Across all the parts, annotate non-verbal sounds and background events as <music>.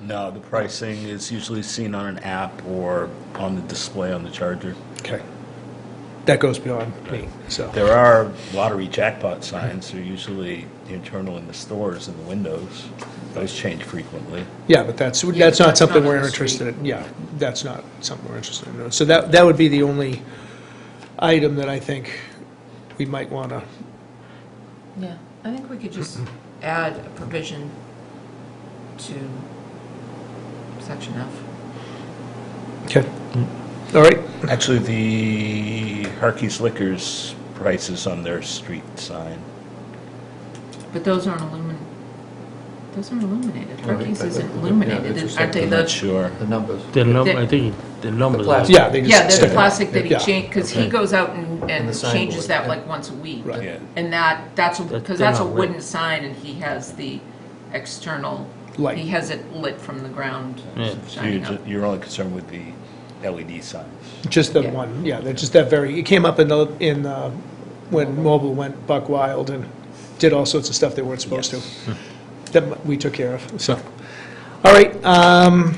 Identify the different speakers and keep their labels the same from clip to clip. Speaker 1: No, the pricing is usually seen on an app or on the display on the charger.
Speaker 2: Okay. That goes beyond me, so.
Speaker 1: There are lottery jackpot signs, they're usually internal in the stores in the windows. Those change frequently.
Speaker 2: Yeah, but that's,
Speaker 3: Yeah,
Speaker 2: that's not
Speaker 3: that's
Speaker 2: something
Speaker 3: not on
Speaker 2: we're
Speaker 3: the
Speaker 2: interested in. Yeah, that's not something we're interested in. no. So that, that would be the only item that I think we might want to,
Speaker 3: Yeah, I think we could just add a provision to section F.
Speaker 2: okay. All right,
Speaker 1: Actually, the Harkey's Liquors prices on their street sign.
Speaker 3: But those aren't illuminated, those aren't illuminated.
Speaker 4: Right,
Speaker 3: Hercules
Speaker 4: but-
Speaker 3: isn't
Speaker 4: but- yeah,
Speaker 3: illuminated,
Speaker 4: it's
Speaker 3: is-
Speaker 4: just
Speaker 3: aren't they
Speaker 4: like
Speaker 1: Not
Speaker 3: the?
Speaker 1: sure.
Speaker 4: The numbers.
Speaker 5: The num,
Speaker 3: They-
Speaker 5: I think the numbers. are-
Speaker 4: plastic.
Speaker 2: yeah, they just.
Speaker 3: Yeah, there's the
Speaker 2: stick it.
Speaker 3: plastic that he
Speaker 2: Yeah.
Speaker 3: changed, because he
Speaker 4: Okay.
Speaker 3: goes out and,
Speaker 4: And
Speaker 3: and
Speaker 4: the
Speaker 3: changes
Speaker 4: signboard,
Speaker 3: that
Speaker 4: yeah.
Speaker 3: like once a week.
Speaker 2: Right.
Speaker 1: Yeah.
Speaker 3: And that, that's,
Speaker 5: That-
Speaker 3: because
Speaker 5: they're
Speaker 3: that's a
Speaker 5: not lit.
Speaker 3: wooden sign and he has the external,
Speaker 2: Light.
Speaker 3: he has it lit from the ground
Speaker 5: Yeah.
Speaker 1: So you're,
Speaker 3: shining up.
Speaker 1: ju- you're only concerned with the LED signs.
Speaker 2: Just the
Speaker 3: Yeah.
Speaker 2: one, yeah, they're just that very, it came up in the, in, uh, when mobile went buck wild and did all sorts of stuff they weren't supposed to. Hmm. That we took care of, so. All right, um,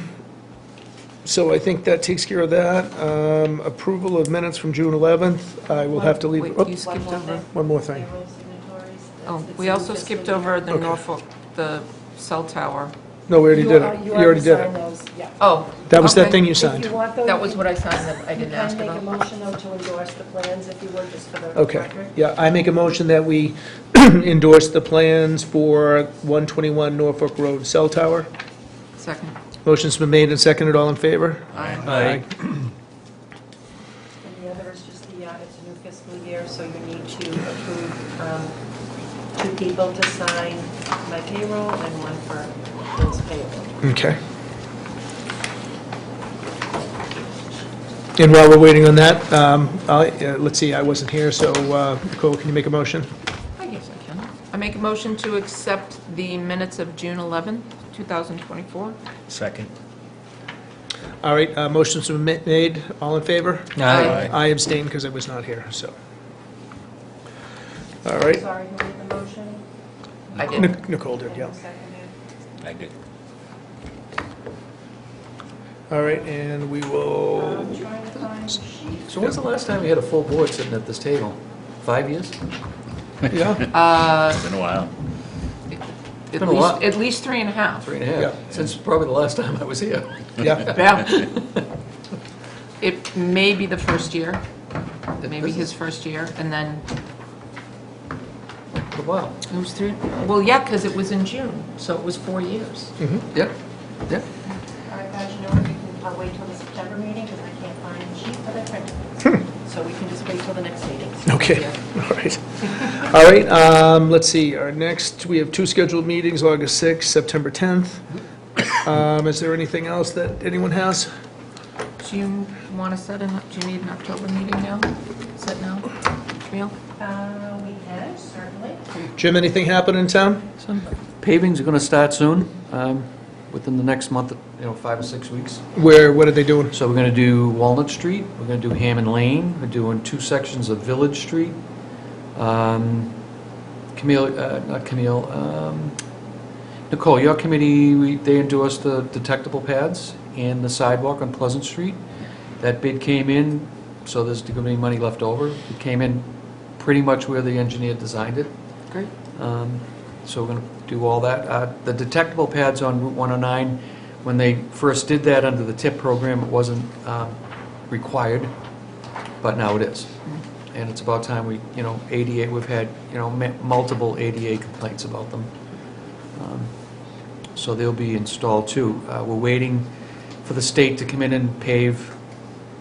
Speaker 2: so I think that takes care of that. Um, Approval of minutes from June 11th, I will have to leave.
Speaker 3: Wait,
Speaker 2: oh,
Speaker 3: you skipped
Speaker 6: One more
Speaker 3: over.
Speaker 6: thing.
Speaker 2: One more thing.
Speaker 6: Payroll signatories. That's-
Speaker 3: Oh,
Speaker 6: it's
Speaker 3: we
Speaker 6: in
Speaker 3: also
Speaker 6: fiscal
Speaker 3: skipped
Speaker 6: year.
Speaker 3: over the
Speaker 2: Okay.
Speaker 3: Norfolk, the cell tower.
Speaker 2: No, we already did
Speaker 6: are-
Speaker 2: it. You already did
Speaker 6: signed
Speaker 2: it.
Speaker 6: those, yeah.
Speaker 3: Oh.
Speaker 2: That was that
Speaker 3: okay.
Speaker 2: thing you
Speaker 6: If you
Speaker 2: signed.
Speaker 6: want, though,
Speaker 3: That
Speaker 6: you
Speaker 3: was
Speaker 6: can-
Speaker 3: what I signed that I
Speaker 6: you
Speaker 3: didn't
Speaker 6: can
Speaker 3: ask about.
Speaker 6: make a motion, though, to endorse the plans if you would, just for the record.
Speaker 2: Okay, yeah, I make a motion that we <clears throat> endorse the plans for 121 Norfolk Road Cell Tower.
Speaker 3: Second.
Speaker 2: Motion's been made and seconded, all in favor?
Speaker 3: Aye.
Speaker 5: Aye.
Speaker 6: And the other is just the, uh, it's a new fiscal year, so you need to approve um, two people to sign my payroll and one for bills payable.
Speaker 2: Okay. And while we're waiting on that, um, I'll- uh, let's see, I wasn't here, so uh, Nicole, can you make a motion?
Speaker 3: I guess I can. I make a motion to accept the minutes of June 11th, 2024.
Speaker 1: Second?
Speaker 2: All right, uh, motions have been made, all in favor?
Speaker 3: Aye.
Speaker 2: I abstain because I was not here, so. All right,
Speaker 6: Sorry, who made the motion?
Speaker 3: I did.
Speaker 2: Nic- Nicole did,
Speaker 6: And
Speaker 2: yeah.
Speaker 6: who seconded?
Speaker 1: I did.
Speaker 3: Uh,
Speaker 2: All right, and we will,
Speaker 6: I'm trying to find the sheet.
Speaker 4: So when's the last time you had a full board sitting at this table? Five years?
Speaker 2: yeah,
Speaker 3: Uh,
Speaker 1: It's been a while.
Speaker 3: At
Speaker 4: Been a
Speaker 3: least,
Speaker 4: lot.
Speaker 3: at least three and a half.
Speaker 4: Three and a
Speaker 2: Yeah.
Speaker 4: half, since probably the last time I was here.
Speaker 2: yeah,
Speaker 3: <laughs> Yeah. It may be the first year, maybe
Speaker 4: This is-
Speaker 3: his first year, and then
Speaker 4: A while.
Speaker 3: it was three, well, yeah, because it was in June, so it was four years.
Speaker 4: Yep, yep.
Speaker 6: All right, guys, you know what, we can, I'll wait till the September meeting, because I can't find the sheet that I printed.
Speaker 2: Hmm.
Speaker 6: So we can just wait till the next meeting.
Speaker 2: okay, all right. All right, um, let's see, our next, we have two scheduled meetings, August 6th, September 10th. Um, Is there anything else that anyone has?
Speaker 3: Do you want to set an, do you need an October meeting now? Set now? Camille?
Speaker 6: Uh, we have, certainly.
Speaker 2: Jim, anything happen in town?
Speaker 4: Some pavings are going to start soon, um, within the next month, you know, five or six weeks.
Speaker 2: Where, what are they doing?
Speaker 4: So we're going to do Walnut Street, we're going to do Hammond Lane, we're doing two sections of Village Street. Um, Camille, uh, not Camille, um, Nicole, your committee, we- they endorsed the detectable pads and the sidewalk on Pleasant Street. That bid came in, so there's going to be money left over. It came in pretty much where the engineer designed it.
Speaker 3: Great.
Speaker 4: Um, So we're going to do all that. Uh, The detectable pads on Route 109, when they first did that under the TIP program, it wasn't um, required, but now it is. And it's about time we, you know, ADA, we've had, you know, ma- multiple ADA complaints about them. Um, So they'll be installed too. Uh, We're waiting for the state to come in and pave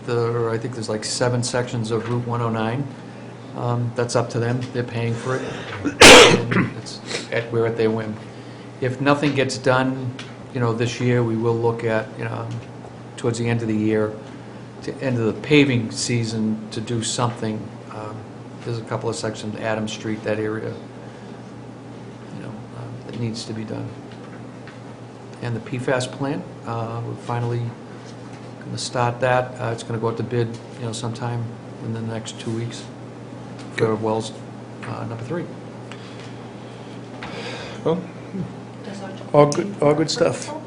Speaker 4: the, I think there's like seven sections of Route 109. Um, That's up to them, they're paying for it. And It's at, we're at their whim. If nothing gets done, you know, this year, we will look at, you know, towards the end of the year, to end of the paving season, to do something. Um, There's a couple of sections, Adams Street, that area, you know, um, that needs to be done. And the PFAS plant, uh, we're finally going to start that. Uh, It's going to go out to bid, you know, sometime in the next two weeks for Wells uh, number three.
Speaker 2: Well,
Speaker 6: Does October
Speaker 2: All good-
Speaker 6: meeting
Speaker 2: all
Speaker 6: work
Speaker 2: good
Speaker 6: for
Speaker 2: stuff.
Speaker 6: people?